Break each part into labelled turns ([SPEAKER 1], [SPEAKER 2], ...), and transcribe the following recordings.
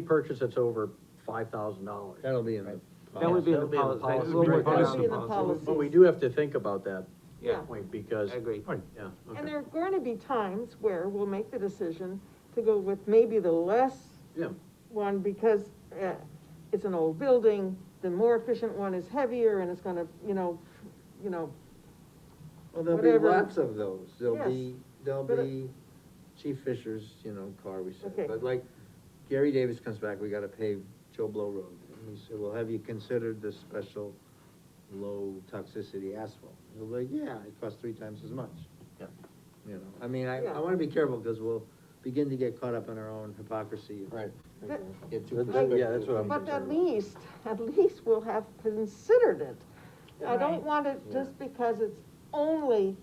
[SPEAKER 1] purchase that's over five thousand dollars.
[SPEAKER 2] That'll be in the.
[SPEAKER 3] That would be in the
[SPEAKER 1] That'll be in the
[SPEAKER 3] policy.
[SPEAKER 1] policy.
[SPEAKER 3] We'll work that
[SPEAKER 4] That'll be in the
[SPEAKER 3] out.
[SPEAKER 4] policy.
[SPEAKER 1] But we do have to think about that
[SPEAKER 3] Yeah,
[SPEAKER 1] point, because,
[SPEAKER 3] I agree.
[SPEAKER 1] yeah,
[SPEAKER 4] And
[SPEAKER 1] okay,
[SPEAKER 4] there are going to be times where we'll make the decision to go with maybe the less
[SPEAKER 1] yeah,
[SPEAKER 4] one, because, uh, it's an old building, the more efficient one is heavier, and it's gonna, you know, you know,
[SPEAKER 2] Well, there'll be
[SPEAKER 4] Whatever.
[SPEAKER 2] lots of those, there'll
[SPEAKER 4] Yes.
[SPEAKER 2] be, there'll
[SPEAKER 4] But, uh,
[SPEAKER 2] be Chief Fisher's, you know, car, we said,
[SPEAKER 4] Okay.
[SPEAKER 2] but like, Gary Davis comes back, we gotta pave Joe Blow Road, and we said, well, have you considered the special low toxicity asphalt? He'll be like, yeah, it costs three times as much.
[SPEAKER 1] Yeah.
[SPEAKER 2] You know, I mean, I, I
[SPEAKER 4] Yeah.
[SPEAKER 2] wanna be careful, cause we'll begin to get caught up in our own hypocrisy.
[SPEAKER 1] Right.
[SPEAKER 4] But-
[SPEAKER 2] Get too.
[SPEAKER 1] That's-
[SPEAKER 2] conservative.
[SPEAKER 1] yeah, that's what I'm-
[SPEAKER 4] but at least, at least we'll have considered it. I don't
[SPEAKER 5] Right.
[SPEAKER 4] want it just because it's only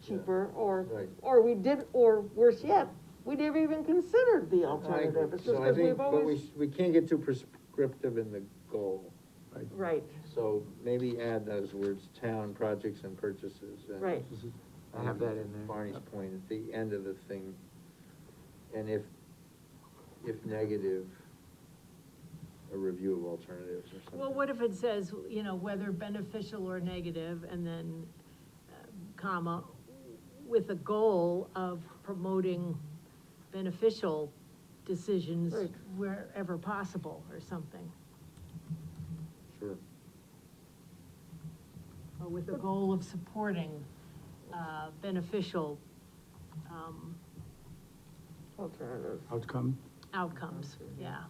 [SPEAKER 4] cheaper, or,
[SPEAKER 2] Right.
[SPEAKER 4] or we did, or worse yet, we never even considered the
[SPEAKER 2] I agree.
[SPEAKER 4] alternative, it's just
[SPEAKER 2] So I
[SPEAKER 4] because
[SPEAKER 2] think,
[SPEAKER 4] we've
[SPEAKER 2] but we,
[SPEAKER 4] always,
[SPEAKER 2] sh- we can't get too prescriptive in the goal.
[SPEAKER 4] right,
[SPEAKER 2] So maybe add those words, town projects and purchases. and-
[SPEAKER 4] right.
[SPEAKER 3] I have that in there.
[SPEAKER 2] Barney's point at the end of the thing. And if, if negative, a review of alternatives or something.
[SPEAKER 5] Well, what if it says, you know, whether beneficial or negative, and then, uh, comma, with a goal of promoting beneficial decisions
[SPEAKER 4] Right.
[SPEAKER 5] wherever possible, or something?
[SPEAKER 2] Sure.
[SPEAKER 5] Or with a goal of supporting, uh, beneficial, um,
[SPEAKER 4] Alternative.
[SPEAKER 6] outcome.
[SPEAKER 5] outcomes, yeah.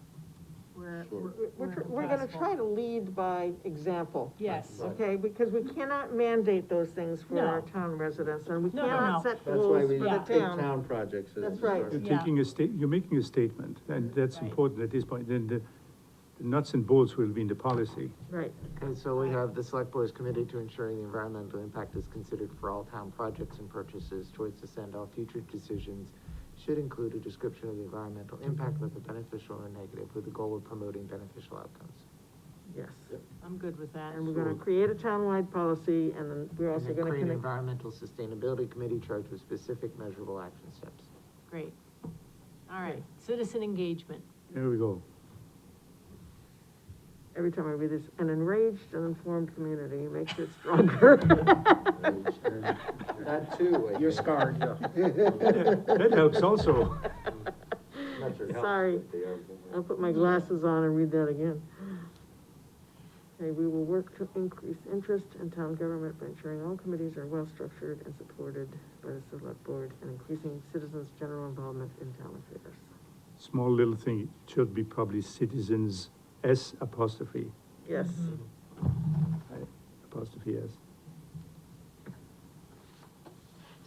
[SPEAKER 5] Where,
[SPEAKER 2] Sure.
[SPEAKER 5] where-
[SPEAKER 4] We're, tr-
[SPEAKER 5] wherever
[SPEAKER 4] we're gonna
[SPEAKER 5] possible.
[SPEAKER 4] try to lead by example.
[SPEAKER 5] Yes.
[SPEAKER 4] Okay, because we cannot mandate those things for our
[SPEAKER 5] No.
[SPEAKER 4] town residents, and we
[SPEAKER 5] No, no,
[SPEAKER 4] cannot
[SPEAKER 5] no.
[SPEAKER 4] set
[SPEAKER 2] That's why
[SPEAKER 4] goals
[SPEAKER 2] we
[SPEAKER 4] for the
[SPEAKER 2] did
[SPEAKER 5] Yeah.
[SPEAKER 4] town.
[SPEAKER 2] town projects. as
[SPEAKER 4] That's
[SPEAKER 2] a
[SPEAKER 4] right.
[SPEAKER 2] start.
[SPEAKER 6] You're
[SPEAKER 5] Yeah. Mm-hmm.
[SPEAKER 6] taking a state, you're making a statement, and that's
[SPEAKER 5] Right.
[SPEAKER 6] important at this point, then the the nuts and bolts will be in the policy.
[SPEAKER 4] Right,
[SPEAKER 3] Okay, so we have, the select board is committed to ensuring the environmental impact is considered for all town projects and purchases towards this end. All future decisions should include a description of the environmental impact, whether beneficial or negative, with the goal of promoting beneficial outcomes.
[SPEAKER 4] yes.
[SPEAKER 5] I'm good with that.
[SPEAKER 4] And we're gonna create a townwide policy, and then we're
[SPEAKER 3] And
[SPEAKER 4] also
[SPEAKER 3] then
[SPEAKER 4] gonna
[SPEAKER 3] create an
[SPEAKER 4] connect,
[SPEAKER 3] environmental sustainability committee charged with specific measurable action steps.
[SPEAKER 5] Great. All right, citizen engagement.
[SPEAKER 6] There we go.
[SPEAKER 4] every time I read this, an enraged and informed community makes it stronger.
[SPEAKER 2] That too. I think.
[SPEAKER 6] scarred, That helps also.
[SPEAKER 2] Not your health,
[SPEAKER 4] Sorry.
[SPEAKER 2] but they are-
[SPEAKER 4] I'll put my glasses on and read that again. Okay, we will work to increase interest in town government by ensuring all committees are well-structured and supported by the select board and increasing citizens' general involvement in town affairs.
[SPEAKER 6] Small little thing, it should be probably citizens, S apostrophe,
[SPEAKER 4] Yes,
[SPEAKER 6] I- apostrophe S.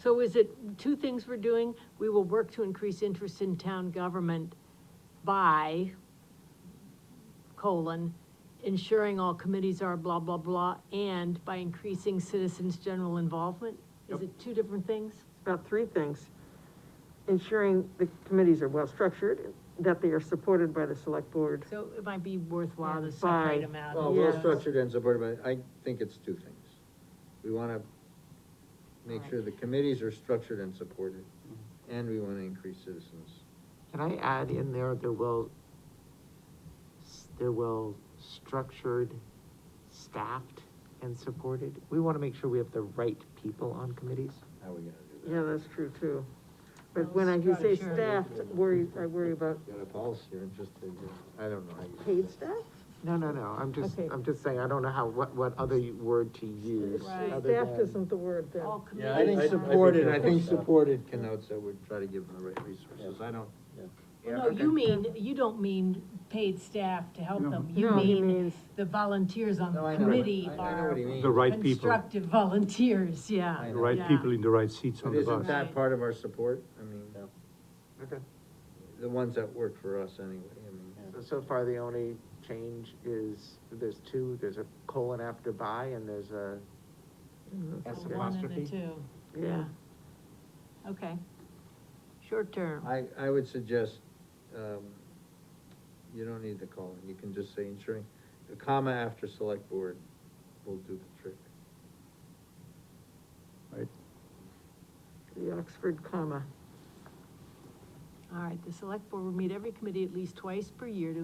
[SPEAKER 5] So is it, two things we're doing, we will work to increase interest in town government by, colon, ensuring all committees are blah, blah, blah, and by increasing citizens' general involvement? Is it two different things?
[SPEAKER 4] about three things. Ensuring the committees are well-structured, that they are supported by the select board.
[SPEAKER 5] So it might be worthwhile to
[SPEAKER 4] By-
[SPEAKER 5] separate them out.
[SPEAKER 2] Oh, Well,
[SPEAKER 4] Yeah.
[SPEAKER 2] well-structured and supported, but I think it's two things. We wanna make sure the committees are structured and supported,
[SPEAKER 6] Mm-hmm.
[SPEAKER 2] and we wanna increase citizens.
[SPEAKER 3] Can I add in there, the well, s- the well structured, staffed, and supported? We want to make sure we have the right people on committees.
[SPEAKER 2] How are we gonna do
[SPEAKER 4] Yeah, that's true too. But when I, you say staffed, worry, I worry about
[SPEAKER 2] that? Got a policy or just, a- I don't know. how you-
[SPEAKER 4] paid staff?
[SPEAKER 3] No, no, no, I'm just,
[SPEAKER 4] Okay.
[SPEAKER 3] I'm just saying, I don't know how, what, what other y- word to use.
[SPEAKER 5] Right.
[SPEAKER 3] other
[SPEAKER 4] Staffed
[SPEAKER 3] than-
[SPEAKER 4] isn't the word then.
[SPEAKER 5] All
[SPEAKER 1] Yeah,
[SPEAKER 2] I think
[SPEAKER 1] I- I
[SPEAKER 5] committees. are-
[SPEAKER 2] supported, I think
[SPEAKER 1] think so.
[SPEAKER 2] supported connotes that we're trying to give them the right resources, I don't. Yeah,
[SPEAKER 5] No,
[SPEAKER 2] okay.
[SPEAKER 5] you mean, you don't mean paid staff to help them, you
[SPEAKER 4] No, he
[SPEAKER 5] mean
[SPEAKER 4] means,
[SPEAKER 5] the volunteers on
[SPEAKER 2] No,
[SPEAKER 5] the
[SPEAKER 2] I know,
[SPEAKER 5] committee
[SPEAKER 2] I I know
[SPEAKER 5] are
[SPEAKER 2] what he means.
[SPEAKER 6] The right people,
[SPEAKER 5] constructive volunteers, yeah.
[SPEAKER 2] I
[SPEAKER 6] the
[SPEAKER 2] know.
[SPEAKER 6] right
[SPEAKER 5] yeah.
[SPEAKER 6] people in the right seats
[SPEAKER 2] But
[SPEAKER 6] on the
[SPEAKER 2] isn't
[SPEAKER 6] bus.
[SPEAKER 2] that
[SPEAKER 5] Right.
[SPEAKER 2] part of our support? I mean,
[SPEAKER 3] Okay,
[SPEAKER 2] the ones that work for us anyway, I mean.
[SPEAKER 3] so, so far the only change is, there's two, there's a colon after by, and there's a S
[SPEAKER 5] The One and the
[SPEAKER 3] apostrophe.
[SPEAKER 5] two,
[SPEAKER 4] yeah.
[SPEAKER 5] okay. Short term,
[SPEAKER 2] I, I would suggest, um, you don't need the colon, you can just say ensuring, the comma after select board will do the trick.
[SPEAKER 6] Right.
[SPEAKER 4] The Oxford comma.
[SPEAKER 5] all right, the select board will meet every committee at least twice per year to